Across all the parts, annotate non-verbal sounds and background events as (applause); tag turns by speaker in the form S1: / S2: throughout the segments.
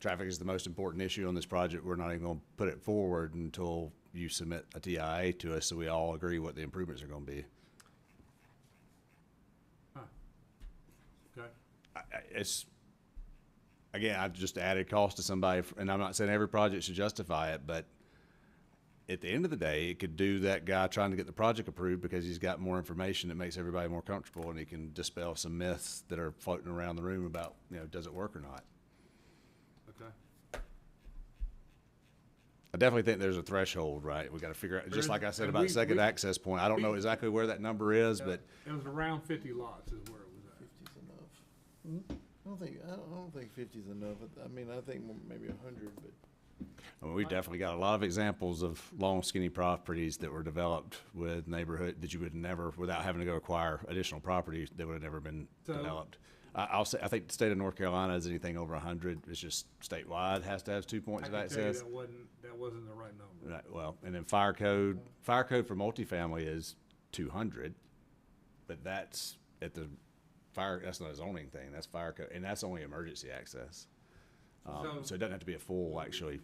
S1: traffic is the most important issue on this project, we're not even gonna put it forward until you submit a TIA to us, so we all agree what the improvements are gonna be.
S2: Okay,
S1: I- I- it's again i've just added cost to somebody f- and i'm not saying every project should justify it but at the end of the day it could do that guy trying to get the project approved because he's got more information that makes everybody more comfortable and he can dispel some myths that are floating around the room about you know does it work or not
S2: okay.
S1: i definitely think there's a threshold right we got to figure out
S2: There is-
S1: just like i said
S2: and
S1: about
S2: we-
S1: second
S2: we-
S1: access point i don't know
S2: we-
S1: exactly where that number is but
S2: It was around fifty lots is where it was at.
S3: Fifty's enough. I don't think, I don't, I don't think fifty's enough. I- I mean, I think m- maybe a hundred, but
S1: I mean, we definitely got a lot of examples of long, skinny properties that were developed with neighborhood that you would never, without having to go acquire additional properties that would have never been
S2: So-
S1: developed. I, I'll say, I think the state of North Carolina is anything over a hundred, it's just statewide has to have two
S2: I
S1: points of
S2: can tell you
S1: access.
S2: that wasn't, that wasn't the right number.
S1: Right, well, and then fire code, fire code for multifamily is two hundred, but that's at the fire, that's not a zoning thing, that's fire code, and that's only emergency access. Um,
S2: So-
S1: so it doesn't have to be a full, actually,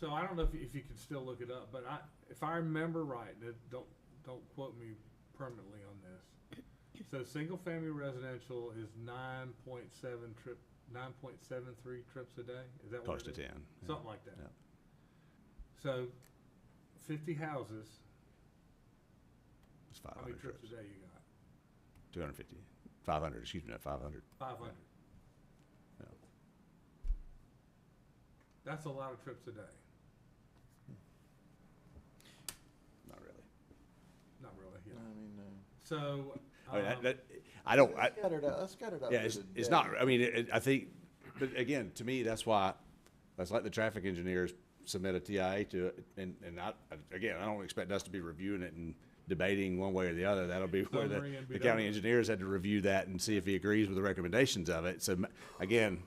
S2: So I don't know if, you- if you can still look it up, but I, if I remember right, and it- don't, don't quote me permanently on this. So single-family residential is nine point seven trip, nine point seven three trips a day, is that what
S1: close
S2: it
S1: to
S2: is?
S1: ten. yeah.
S2: Something like that.
S1: Yeah.
S2: So fifty houses,
S1: It's five
S2: how many
S1: hundred
S2: trips
S1: trips.
S2: a day you got?
S1: 250, 500, excuse me, not 500.
S2: Five hundred.
S1: Yeah.
S2: That's a lot of trips a day.
S1: Not really.
S2: Not really,
S3: I
S2: yeah.
S3: mean, uh.
S2: So,
S1: I mean, that-
S2: um,
S1: that, I don't, I,
S3: Scattered out, I scattered out.
S1: yeah,
S3: through
S1: it's,
S3: the
S1: it's
S3: day.
S1: not, I mean, it, it- I think, but again, to me, that's why, that's like the traffic engineers submit a TIA to it. And, and I, again, I don't expect us to be reviewing it and debating one way or the other. That'll be where
S2: Summary
S1: the,
S2: and be
S1: the
S2: done
S1: county
S2: with it.
S1: engineers had to review that and see if he agrees with the recommendations of it. So again,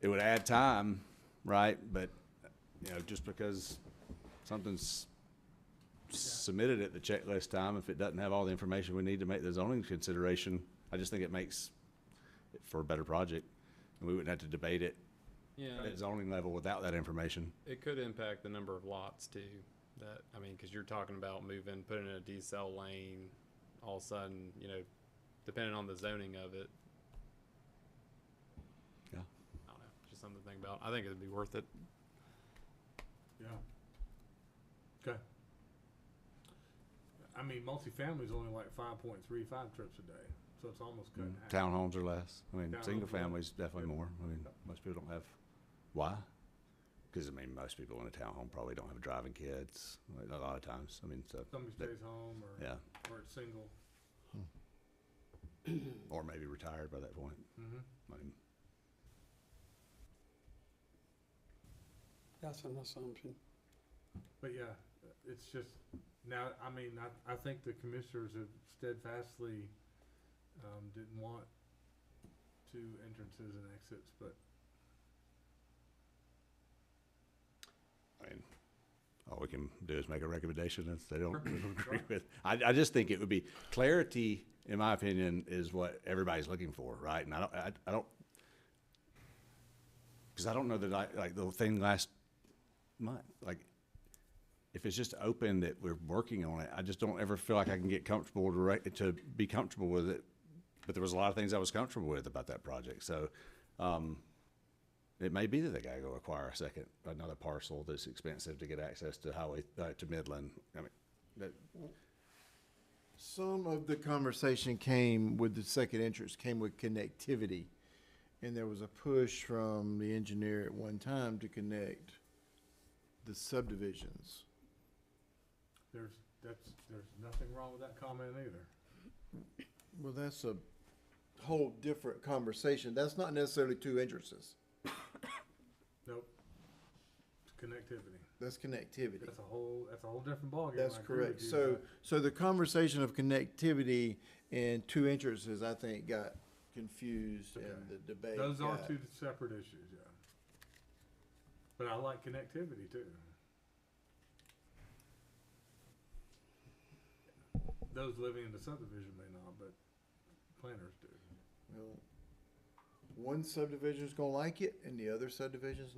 S1: it would add time, right? But, you know, just because something's submitted at the checklist time, if it doesn't have all the information we need to make the zoning consideration, I just think it makes it for a better project. And we wouldn't have to debate it
S4: Yeah,
S1: at zoning level without that information.
S4: it could impact the number of lots too. That, I mean, cause you're talking about moving, putting in a decel lane, all of a sudden, you know, depending on the zoning of it.
S1: Yeah.
S4: I don't know, just something to think about. I think it'd be worth it.
S2: yeah. Okay. I mean, multifamily's only like five point three five trips a day, so it's almost cut in
S1: Mm,
S2: half.
S1: Townhomes are less. I mean,
S2: Townhomes
S1: single
S2: are less.
S1: families definitely more. I mean, most people don't have, why? Because I mean, most people in a townhome probably don't have driving kids, like, a lot of times. I mean, so,
S2: Somebody
S1: that-
S2: stays home or,
S1: yeah,
S2: or it's single.
S1: or maybe retired by that point.
S2: Mhm.
S1: I mean,
S5: That's an assumption.
S2: But yeah, it's just, now, I mean, I, I think the commissioners have steadfastly, um, didn't want two entrances and exits, but
S1: I mean, all we can do is make a recommendation if they don't (laughs) agree
S2: right.
S1: with. I, I just think it would be, clarity, in my opinion, is what everybody's looking for, right? And I don't, I, I don't, because I don't know that I, like, the thing last month, like, if it's just open that we're working on it, I just don't ever feel like I can get comfortable to, rec- to be comfortable with it. But there was a lot of things I was comfortable with about that project, so, um, it may be that they gotta go acquire a second, another parcel that's expensive to get access to highway, uh, to Midland. I mean, that,
S3: Some of the conversation came with the second entrance, came with connectivity. And there was a push from the engineer at one time to connect the subdivisions.
S2: there's, that's, there's nothing wrong with that comment either.
S3: Well, that's a whole different conversation. That's not necessarily two entrances.
S2: Nope. It's Connectivity.
S3: That's connectivity.
S2: That's a whole, that's a whole different ballgame.
S3: That's
S2: I agree with
S3: correct.
S2: you,
S3: So,
S2: but-
S3: so the conversation of connectivity and two entrances, I think, got confused in
S2: Okay.
S3: the debate.
S2: Those are
S3: got-
S2: two separate issues, yeah. But I like connectivity too. Those living in the subdivision may not, but planners do.
S3: Well, One subdivision's gonna like it and the other subdivision's